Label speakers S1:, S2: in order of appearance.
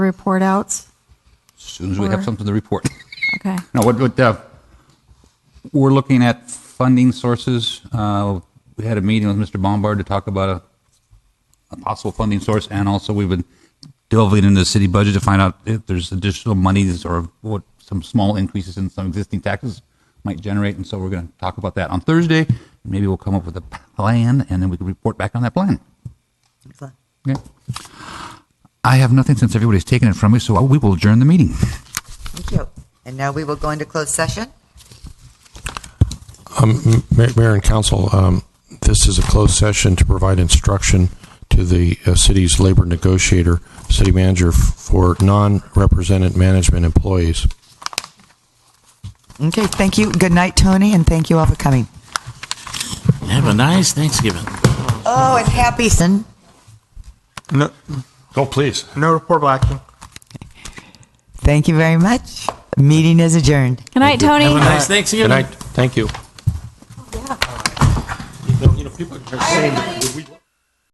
S1: report outs?
S2: As soon as we have
S1: Or-
S2: something to report.
S1: Okay.
S2: No, what, what, uh, we're looking at funding sources. Uh, we had a meeting with Mr. Bombard to talk about a, a possible funding source, and also we've been delving into the city budget to find out if there's additional monies or what some small increases in some existing taxes might generate, and so we're going to talk about that on Thursday. Maybe we'll come up with a plan, and then we can report back on that plan. Okay. I have nothing since everybody's taken it from me, so we will adjourn the meeting.
S3: Thank you. And now we will go into closed session.
S4: Um, Ma- Mayor and council, um, this is a closed session to provide instruction to the uh, city's labor negotiator, city manager, f- for non-represented management employees.
S3: Okay, thank you. Good night, Tony, and thank you all for coming.
S5: Have a nice Thanksgiving.
S3: Oh, and happy.
S6: No,
S4: Go, Oh, please.
S6: no reportable action.
S3: Thank you very much. Meeting is adjourned.
S1: Good night, Tony.
S5: Have a nice
S4: Good
S5: Thanksgiving.
S4: night. Thank you.